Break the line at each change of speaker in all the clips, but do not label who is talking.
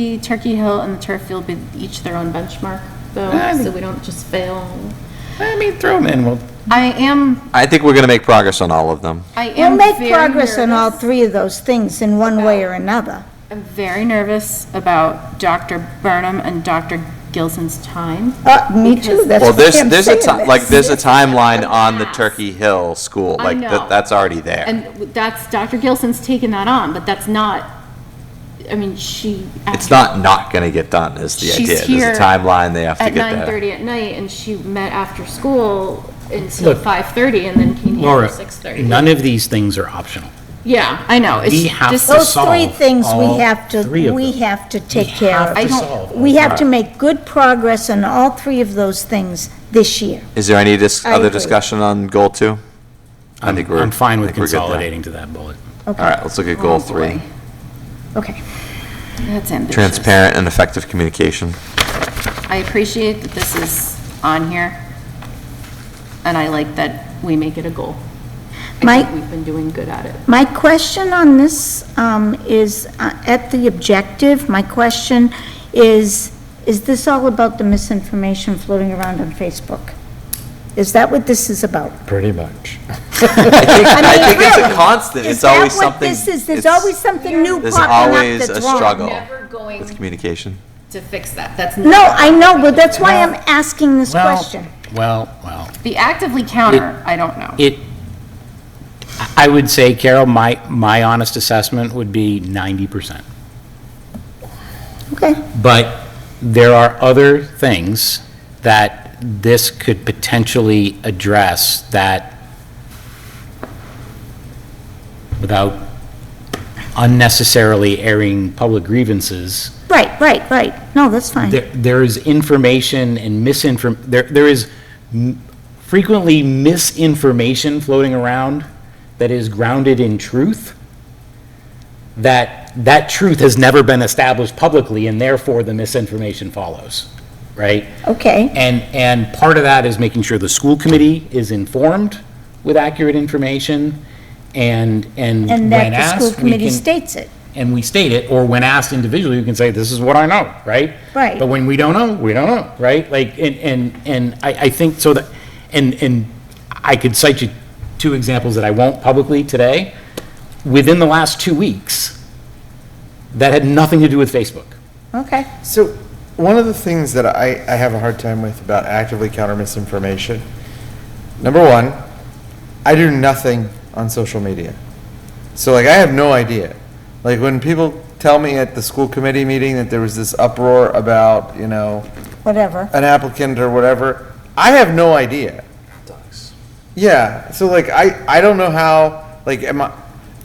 The Turkey Hill and the turf field be each their own benchmark, though,
Ah.
Um,
so we don't just fail.
I mean, throw them in, we'll,
I am,
I think we're going to make progress on all of them.
I
We'll
am
make
very
progress on all
nervous- Uh,
three of those things in one way or another.
I'm very nervous about Dr. Burnham and Dr. Gilson's time.
Uh, me too,
Because-
that's
Well,
what
there's,
I'm
there's a,
saying.
ti- like, there's a timeline on the Turkey Hill school,
I
like,
know.
that, that's already there.
And that's, Dr. Gilson's taken that on, but that's not, I mean, she.
It's not not going to get done, is the
She's
idea.
here
There's a timeline they have to
At
get
nine
there.
thirty at night, and she met after school until
Look,
five thirty, and then came here
Laura,
at six thirty.
none of these things are optional.
Yeah, I know. It's
We have
just-
to
Those three
solve
things we
all
have to,
three of
we
them.
have to take care of.
I
to
don't-
solve all
We have to
three.
make good progress on all three of those things this year.
Is there any dis-
I
other
agree.
discussion on goal two? I think
I'm,
we're-
I'm fine
I
with
think we're good there.
consolidating to that bullet.
All right, let's look at
Oh,
goal
boy.
three.
Okay.
That's ambitious.
Transparent and effective communication.
I appreciate that this is on here, and I like that we make it a goal. I
Mike?
think we've been doing good at it.
My question on this um, is, uh, at the objective, my question is, is this all about the misinformation floating around on Facebook? Is that what this is about?
Pretty much.
I think it's a
really,
constant,
Is
it's
that
always
what
something.
this is? There's
it's-
always something new
There's
popping up
always
that's
a
wrong.
struggle
Never going
with communication.
to fix that. That's.
No, I know, but that's why I'm asking this
Well,
question.
Well, well,
The actively counter, I don't know.
it, I- I would say, Carol, my, my honest assessment would be ninety percent.
Okay,
But there are other things that this could potentially address that, without unnecessarily airing public grievances,
right, right, right. No, that's fine.
there, there is information and misinform, there, there is m- frequently misinformation floating around that is grounded in truth, that, that truth has never been established publicly, and therefore the misinformation follows, right?
Okay.
And, and part of that is making sure the school committee is informed with accurate information, and, and when
And that the school
asked, we
committee
can-
states it.
and we state it, or when asked individually, we can say, this is what I know, right?
Right.
But when we don't know, we don't know, right? Like, and, and, and I, I think so that, and, and I could cite you two examples that I won't publicly today, within the last two weeks, that had nothing to do with Facebook.
Okay.
So, one of the things that I, I have a hard time with about actively counter misinformation, number one, I do nothing on social media. So, like, I have no idea. Like, when people tell me at the school committee meeting that there was this uproar about, you know,
Whatever.
an applicant or whatever, I have no idea. Yeah, so like, I, I don't know how, like, am I,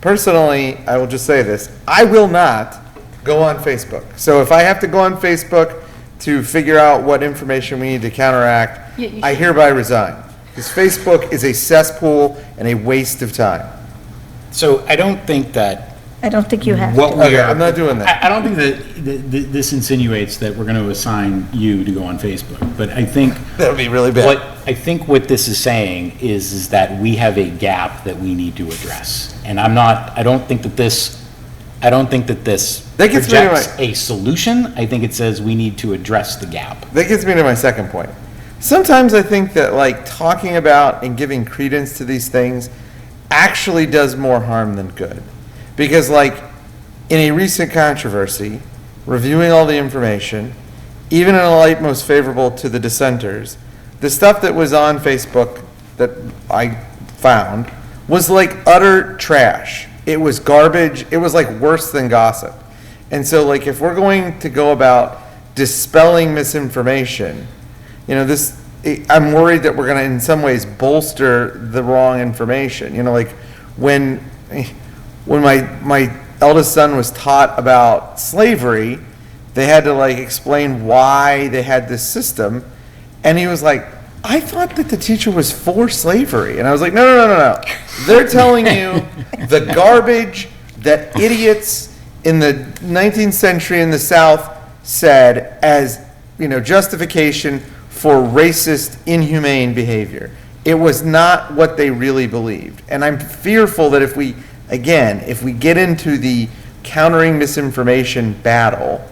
personally, I will just say this, I will not go on Facebook. So if I have to go on Facebook to figure out what information we need to counteract,
Yeah, you
I
should.
hereby resign. Because Facebook is a cesspool and a waste of time.
So I don't think that
I don't think you have.
what
Okay,
we are.
I'm not doing that.
I, I don't think that, that, that this insinuates that we're gonna assign you to go on Facebook, but I think
That would be really
What, I think what this is saying is, is that we have a gap that we need to address. And I'm not, I don't think that this, I don't think that this
That gets me to
projects a solution. I think it says we need to address the gap.
That gets me to my second point. Sometimes I think that like talking about and giving credence to these things actually does more harm than good. Because like in a recent controversy, reviewing all the information, even in a light most favorable to the dissenters, the stuff that was on Facebook that I found was like utter trash. It was garbage. It was like worse than gossip. And so like if we're going to go about dispelling misinformation, you know, this, I- I'm worried that we're going to in some ways bolster the wrong information. You know, like when, when my, my eldest son was taught about slavery, they had to like explain why they had this system. And he was like, I thought that the teacher was for slavery. And I was like, no, no, no, no, no. They're telling you the garbage that idiots in the 19th century in the South said as, you know, justification for racist, inhumane behavior. It was not what they really believed. And I'm fearful that if we, again, if we get into the countering misinformation battle,